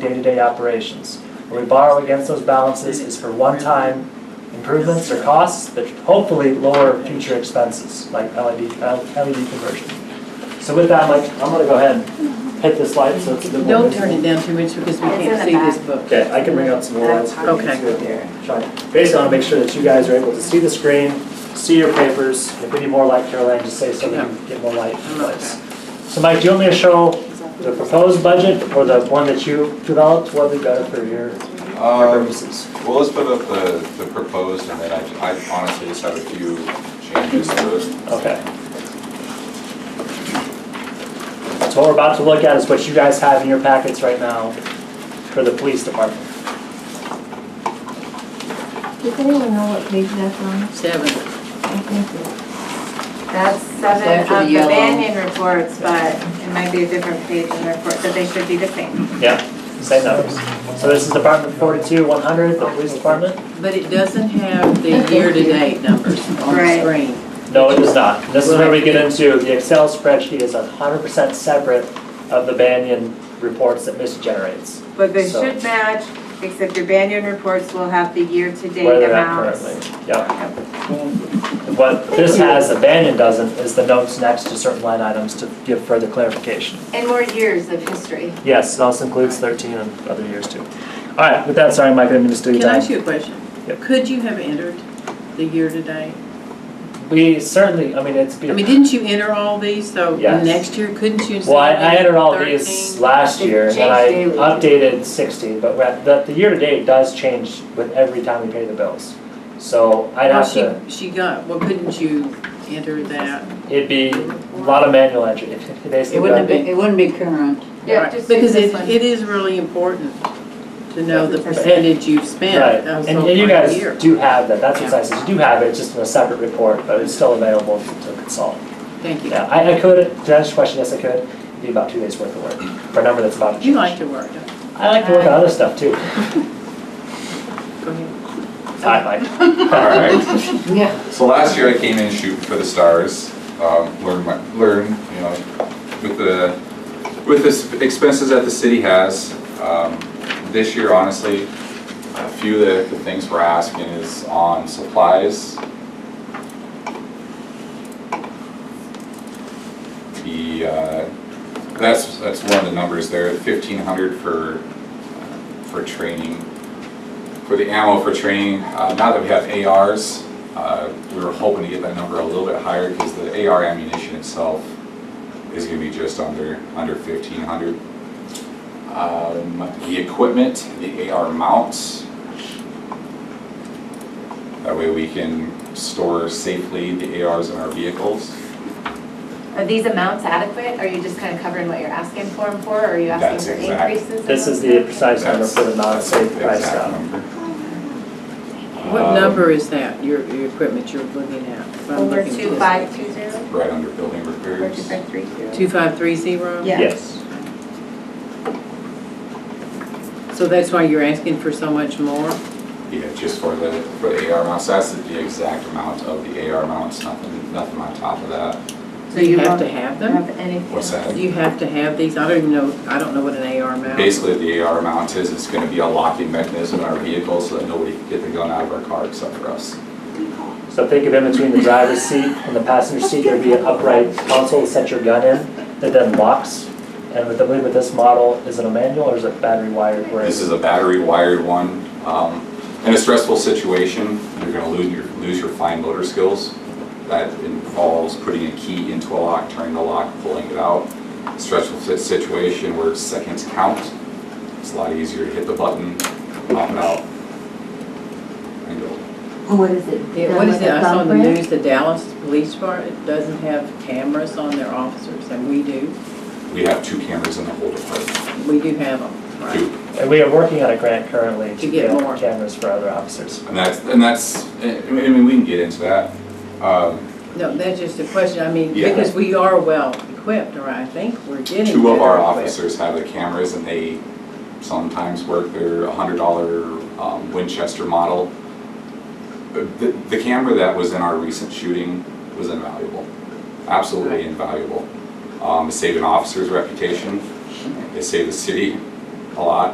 day-to-day operations. Where we borrow against those balances is for one-time improvements or costs that hopefully lower future expenses, like LED, uh, LED conversion. So with that, Mike, I'm gonna go ahead and hit this slide, so it's a bit more Don't visible. turn it down too much because we It's in can't the see this back. book. Okay, I can bring out some more lines. for you Okay. too. Try- Basically, I want to make sure that you guys are able to see the screen, see your papers. If we need more light, Caroline, just say so we can get more light. I'm not sure. So Mike, do you want me to show the proposed budget or the one that you developed, what we got for your Um, purposes? Well, let's put up the, the proposed, and then I, ju- I honestly just have a few changes to it. Okay. So what we're about to look at is what you guys have in your packets right now for the police department. Does anyone know what page that's on? Seven. I That's seven of After the the yellow. Banyan reports, but it might be a different page in the report, but they should be the same. Yeah. Same numbers. So this is Department forty-two, one hundred, the police department? But it doesn't have the year-to-date numbers on the Right. screen. No, it does not. This is where we get into, the Excel spreadsheet is hundred percent separate of the Banyan reports that Mitch generates, But they So- should match, except your Banyan reports will have the where year-to-date they're at amounts. currently. Yep. What this has that Banyan doesn't is the notes next to certain line items to give further clarification. And more years of history. Yes, it also includes thirteen and other years too. All right, with that, sorry, Mike, I didn't mean to steal your Can I time. ask you a question? Yep. Could you have entered the year-to-date? We certainly, I mean, it's. I mean, didn't you enter all these, so Yes. next year, couldn't you? Well, I, say I entered all these 13? last It year, and then I changed updated sixteen, but ra- the, the year-to-date does change with every time we pay the bills. So I'd Well, have she- to, She got, well, couldn't you enter that? it'd be a lot of manual entry, basically. It wouldn't have been, it wouldn't be current. Yeah, Right, just do Because this it, one. it is really important to know the Right. percentage you've spent. Right, of and so and you far guys year. do have that, that's what I Yeah. said, you do have it, it's just in a separate report, but it's still available to consult. Thank you. Yeah, I, I could, to answer your question, yes, I could, it'd be about two days worth of work, for a number that's about to change. You like to work, don't you? I like to work on other stuff too. Go ahead. Hi, Mike. Alright, Yeah. so last year I came in shooting for the stars, um, learn my, learn, you know, with the, with the s- expenses that the city has. Um, This year, honestly, a few of the, the things we're asking is on supplies. The, uh, that's, that's one of the numbers there, fifteen hundred for, uh, for training, for the ammo for training. Uh, Now that we have ARs, uh, we were hoping to get that number a little bit higher because the AR ammunition itself is gonna be just under, under fifteen hundred. Um, The equipment, the AR mounts. That way we can store safely the ARs in our vehicles. Are these amounts adequate? Are you just kind of covering what you're asking for them for, or are you That's asking for exact. increases? in This is the those? precise number for the non-safe That's- price that's the down. exact number. What Um, number is that, your, your equipment you're looking at? If I'm Over looking two at five two zero, Right under building or two repairs. five three zero? this. 2530? Yeah. Yes. So that's why you're asking for so much more? Yeah, just for the, for the AR mounts, that's the exact amount of the AR mounts, nothing, nothing on top of that. So you have won't to have them? Have anything? What's that? You have to have these? I don't even know, I don't know what an AR mount is. Basically, the AR mount is, it's gonna be a locking mechanism in our vehicle so that nobody can get the gun out of our car except for us. So think of in between the driver's seat and the passenger seat, there'd be an upright console to set your gun in that then locks. And with, I believe with this model, is it a manual or is it battery wired? Where This it's- is a battery wired one. Um, In a stressful situation, you're gonna lose your, lose your fine motor skills. That involves putting a key into a lock, turning the lock, pulling it out. Stressful si- situation where seconds count, it's a lot easier to hit the button, pop it out. And go. What is it? Yeah, What is it? I saw in the news, the Dallas Police Department doesn't have cameras on their officers, and we do. We have two cameras in the whole department. We do have them, right? Two. And we are working on a grant currently to To get get more. cameras for other officers. And that's, and that's, I I mean, we can get into that. Um, No, that's just a question, I mean, Yeah. because we are well equipped, or I think we're getting. Two of better our equipped. officers have the cameras and they sometimes work their hundred dollar um, Winchester model. Uh, The, the camera that was in our recent shooting was invaluable, absolutely invaluable. Um, it saved an officer's reputation, it saved the city a lot.